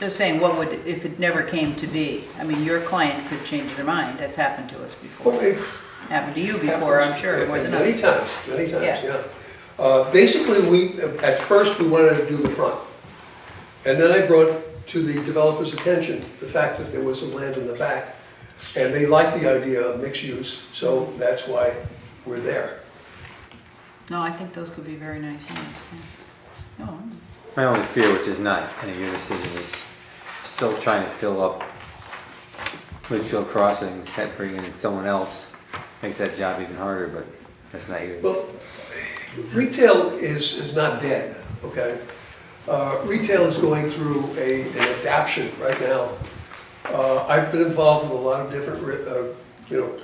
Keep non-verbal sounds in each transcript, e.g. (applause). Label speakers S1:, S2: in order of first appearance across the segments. S1: Just saying, what would, if it never came to be? I mean, your client could change their mind, that's happened to us
S2: Well,
S1: before.
S2: it
S1: Happened to you before, I'm
S2: happens
S1: sure, more than
S2: Many
S1: us.
S2: times, many times,
S1: Yeah.
S2: yeah. Uh, Basically, we, at first, we wanted to do the front. And then I brought to the developer's attention the fact that there was some land in the back. And they liked the idea of mixed use, so that's why we're there.
S1: No, I think those could be very nice units, yeah. No,
S3: My only fear, which is not any of your decision, is still trying to fill up Litchfield Crossings, that bringing in someone else makes that job even harder, but that's not your.
S2: Well, retail is, is not dead, okay? Uh, Retail is going through a, an adaption right now. Uh, I've been involved with a lot of different, re- uh, you know,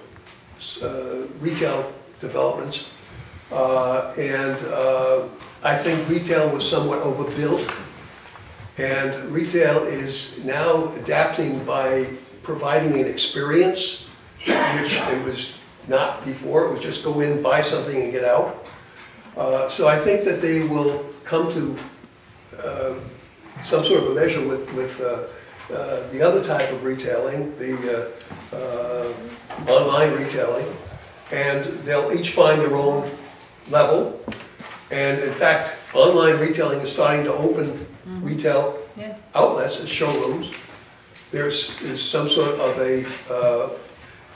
S2: s- uh, retail developments. Uh, And uh, I think retail was somewhat overbuilt. And retail is now adapting by providing an experience, which it was not before, it was just go in, buy something and get out. Uh, So I think that they will come to uh, some sort of a measure with, with uh, uh, the other type of retailing, the uh, uh, online retailing, and they'll each find their own level. And in fact, online retailing is starting to open retail
S1: yeah,
S2: outlets and Oh, showrooms. There's, is some sort of a uh,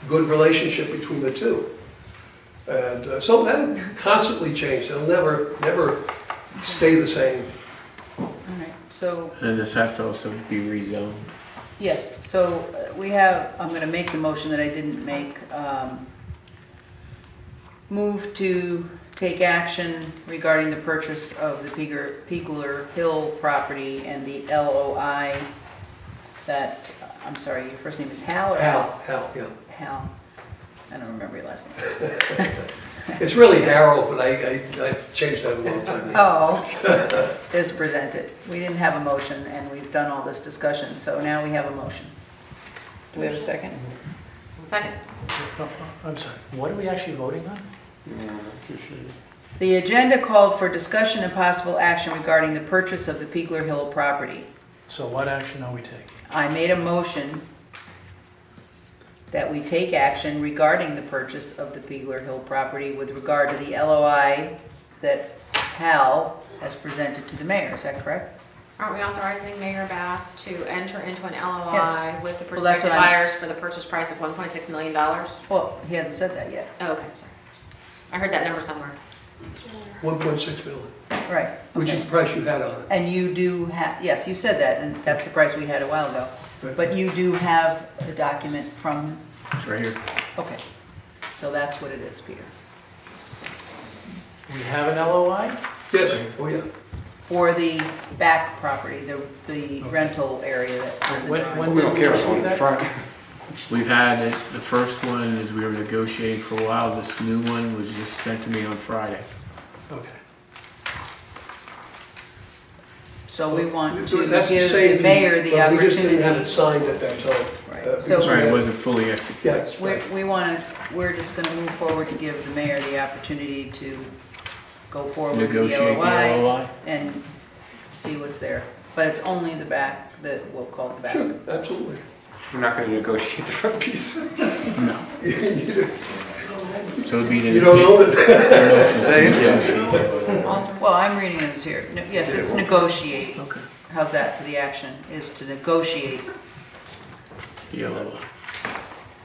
S2: good relationship between the two. And uh, so that constantly change, they'll never, never stay the same.
S1: all right, so,
S4: And this has to also be rezoned.
S1: yes, so uh, we have, I'm gonna make the motion that I didn't make. um, Move to take action regarding the purchase of the Peeger- Pegler Hill property and the LOI that, I'm sorry, your first name is Hal or Al?
S2: Hal, Hal, yeah.
S1: Hal, I don't remember your last name.
S2: It's really Harold, but I, I, I've changed that a long time ago.
S1: Oh, okay. is presented. We didn't have a motion, and we've done all this discussion, so now we have a motion. Do we have a second?
S5: Second.
S6: Oh, I'm sorry, what are we actually voting on?
S1: The agenda called for discussion and possible action regarding the purchase of the Pegler Hill property.
S6: So what action are we taking?
S1: I made a motion that we take action regarding the purchase of the Pegler Hill property with regard to the LOI that Hal has presented to the mayor, is that correct?
S5: Aren't we authorizing Mayor Bass to enter into an LOI
S1: Yes.
S5: with the
S1: Well, that's
S5: prospective
S1: what I'm-
S5: buyers for the purchase price of one point six million dollars?
S1: Well, he hasn't said that yet.
S5: Oh, okay, sorry. I heard that number somewhere.
S2: One point six billion,
S1: Right.
S2: which
S1: Oh. okay.
S2: is the price you had on it.
S1: And you do have, yes, you said that, and that's the price we had a while ago.
S2: Right.
S1: But you do have the document from,
S4: It's right here.
S1: okay. So that's what it is, Peter.
S6: We have an LOI?
S2: Yes, oh yeah.
S1: For the back property, the, the rental area that.
S6: When- when
S3: We don't care
S6: about
S3: about the front.
S4: We've had it, the first one is we were negotiating for a while, this new one was just sent to me on Friday.
S6: Okay.
S1: So we want
S2: So
S1: to
S2: that's the
S1: give
S2: same
S1: the mayor
S2: thing,
S1: the
S2: but We just didn't have it
S1: opportunity.
S2: signed at that time.
S1: Right.
S2: uh, because
S1: So-
S2: we
S4: Sorry, it
S2: had-
S4: wasn't fully executed.
S2: Yeah, that's
S1: We,
S2: right.
S1: we want to, we're just going to move forward to give the mayor the opportunity to go forward with the
S4: Negotiate the
S1: LOI
S4: LOI.
S1: and see what's there. But it's only the back that we'll call the back.
S2: Sure, absolutely.
S3: We're not gonna negotiate the front piece.
S4: No.
S2: You
S4: So it'd be the.
S2: you don't own it.
S4: Yeah.
S1: Well, I'm reading it as here. No, Yes, it's negotiate. How's that for the action, is to negotiate.
S4: The LOI.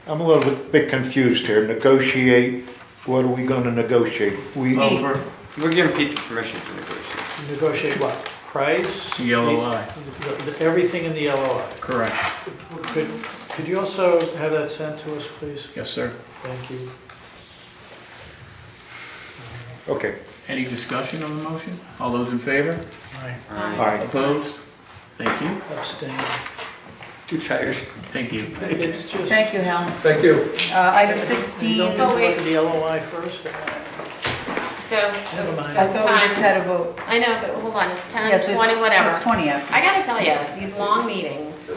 S7: I'm a little bit- bit confused here. Negotiate, what are we going to negotiate? We,
S1: Me.
S4: Over
S3: We're giving people permission to negotiate.
S6: Negotiate what? Price?
S4: the LOI,
S6: The- the- Everything in the LOI.
S4: correct.
S6: Could, could you also have that sent to us, please?
S4: Yes, sir.
S6: Thank you.
S7: okay,
S4: Any discussion on the motion? All those in favor?
S6: I
S7: all right.
S4: Opposed? Thank you.
S6: abstain.
S3: Too tired.
S4: Thank you.
S6: It's just.
S1: Thank you, Helen.
S2: (laughs) Thank you.
S1: Uh, Item
S6: You
S1: 16,
S6: don't
S1: I
S5: Oh,
S6: get to look
S5: wait.
S6: at the LOI first?
S5: So,
S6: Never mind.
S5: so
S1: thought we just
S5: time.
S1: had a vote.
S5: I know, but hold on, it's ten,
S1: Yes, it's-
S5: twenty, whatever.
S1: It's 20 after.
S5: I gotta tell you, these long meetings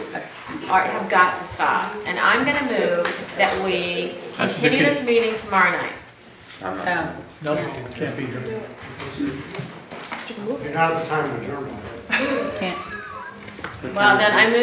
S5: are, have got to stop. And I'm gonna move that we
S4: That's the
S5: continue
S4: kid.
S5: this meeting tomorrow night.
S3: I'm not.
S1: Um,
S6: No, can't be here.
S8: You're not at the time of adjournment.
S1: Can't,
S5: Well, then I move